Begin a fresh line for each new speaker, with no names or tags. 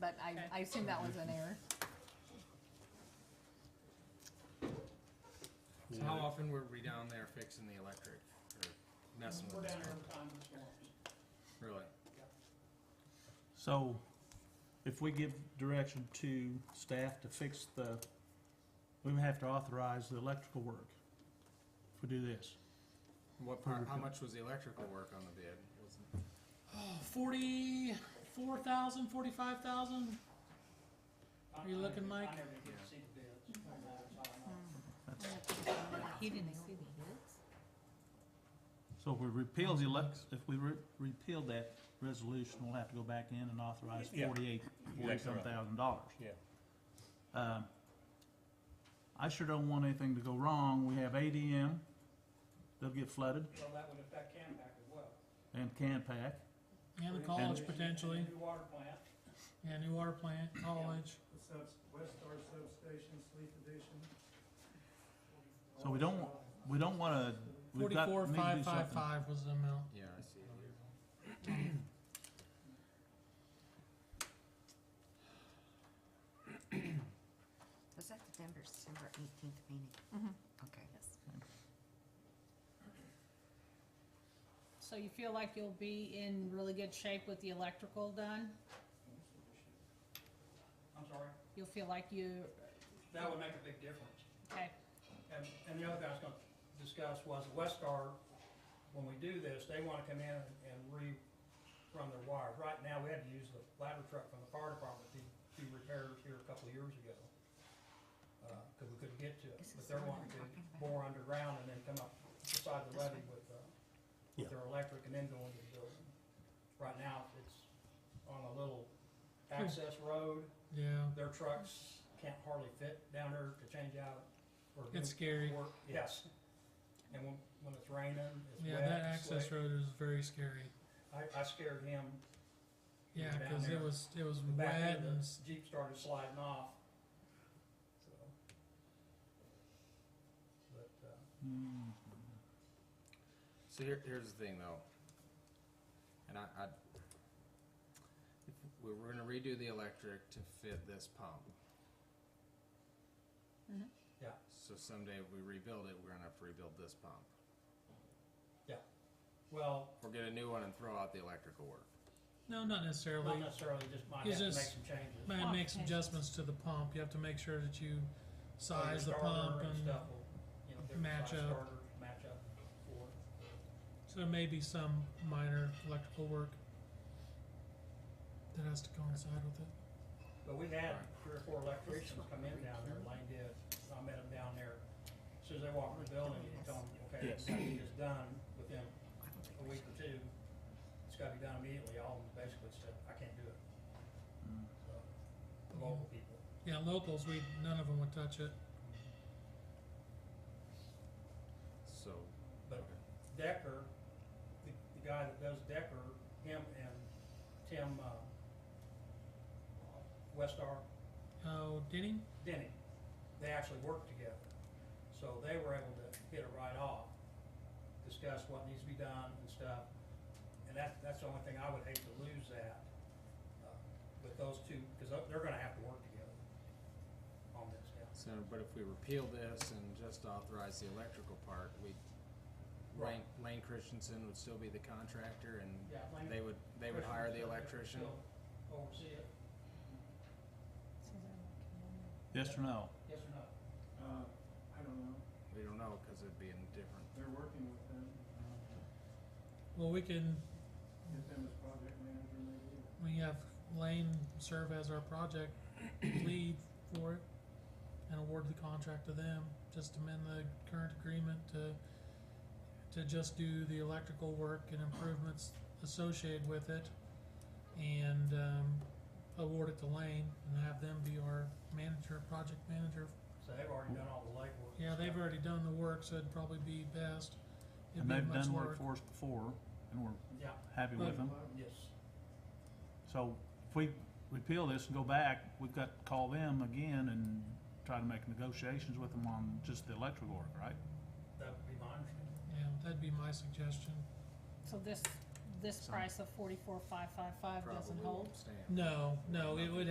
but I,
Okay.
I assume that was an error.
So how often were we down there fixing the electric or messing
We're
with it?
down here every time this morning.
Really?
So, if we give direction to staff to fix the, we would have to authorize the electrical work if we do this.
What part, how much was the electrical work on the bid? Was it-
Forty-four thousand, forty-five thousand?
I-
You
I
looking,
never-
Mike?
I never did see the bids on that, so I don't know.
He didn't see the hits?
So if we repeal the elec, if we re- repeal that resolution, we'll have to go back in and authorize
Yeah.
forty-eight,
Exactly
forty-some
right.
thousand dollars.
Yeah.
Um, I sure don't want anything to go wrong. We have ADM, they'll get flooded,
Well, that would affect Canpack as well.
and Canpack.
Yeah, the
We're
college
gonna need a
potentially,
New water plant.
yeah, new water plant, college,
The subs, West Star substation, Sleep Edition.
So we don't, we don't wanna, we've got,
forty-four,
need to do
five, five,
something.
five was the amount.
Yeah, I see. it here.
Was that the Denver, December eighteenth meeting?
Mhm.
Okay.
So you feel like you'll be in really good shape with the electrical done?
I'm sorry,
You'll feel like you,
that would make a big difference.
okay,
And, and the other thing I was gonna discuss was Westar, when we do this, they wanna come in and and rerun their wires. Right now, we had to use the ladder truck from the fire department to do repairs here a couple of years ago. Uh, cause we couldn't get to it,
This
but
is
they're
the one
wanting to
I'm talking about.
bore underground and then come up beside the
This
levee with, uh,
Yeah.
with their electric and then go into the building. Right now, it's on a little
Hmm.
access road,
Yeah,
their trucks can't hardly fit down there to change out or do
it's scary.
work. Yes. And when, when it's raining, it's
Yeah,
wet.
that
it's
access
slick.
road is very scary.
I, I scared him.
Yeah,
Down
cause it
there.
was, it was
The back
wet
end
and,
of
s-
the Jeep started sliding off. So. But, uh,
Hmm.
So here, here's the thing though. And I, I, if we we're gonna redo the electric to fit this pump.
Mhm.
Yeah.
So someday if we rebuild it, we're gonna have to rebuild this pump.
well,
Or get a new one and throw out the electrical work.
no, not necessarily.
not necessarily just might have
It's
to make
just-
some changes.
Man, make some
Modifications.
adjustments to the pump. You have to make sure that you size the
Your starter
pump and,
stuff will, you know, different
match
size
up.
starters Match up for it.
so there may be some minor electrical work that has to coincide with it.
But we had three or four electricians come in down there, Lane did, I met them down there. As Soon as they walked in the building, you tell them, okay, it's gotta be just done within
I don't think
a
we
week or two. It's gotta be done immediately, all of them basically said, I can't do it. So, The local people.
Yeah, locals, we, none of them would touch it.
So,
But Decker, the, the guy that does Decker, him and Tim, uh, Westar,
Oh, Denny?
Denny, they actually worked together. So they were able to hit it right off, discuss what needs to be done and stuff. And that, that's the only thing I would hate to lose that, uh, with those two, because they're gonna have to work together on this, yeah.
so, but if we repeal this and just authorize the electrical part, we, Lane, Lane Christensen would still be the contractor and
Yeah, Lane-
they would, they would hire the electrician.
They'll Oversee it,
Yes or no?
yes or no?
Uh, I don't know,
We don't know, cause it'd be in different,
they're working with them, uh,
Well, we can,
get them as project manager maybe. or-
we have Lane serve as our project lead for it and award the contract to them. Just amend the current agreement to, to just do the electrical work and improvements associated with it. And, um, award it to Lane and have them be our manager, project manager.
So they've already done all the legwork. and
Yeah, they've
stuff.
already done the work, so it'd probably be best. It'd
And
be
they've
much
done
lower-
work for us before, and we're
Yeah,
happy with them.
yes.
So if we repeal this and go back, we've got to call them again and try to make negotiations with them on just the electrical work, right?
That would be my understanding.
Yeah, that'd be my suggestion.
so this, this
Some-
price of forty-four, five, five, five doesn't
probably
hold?
won't stand.
No, no, it would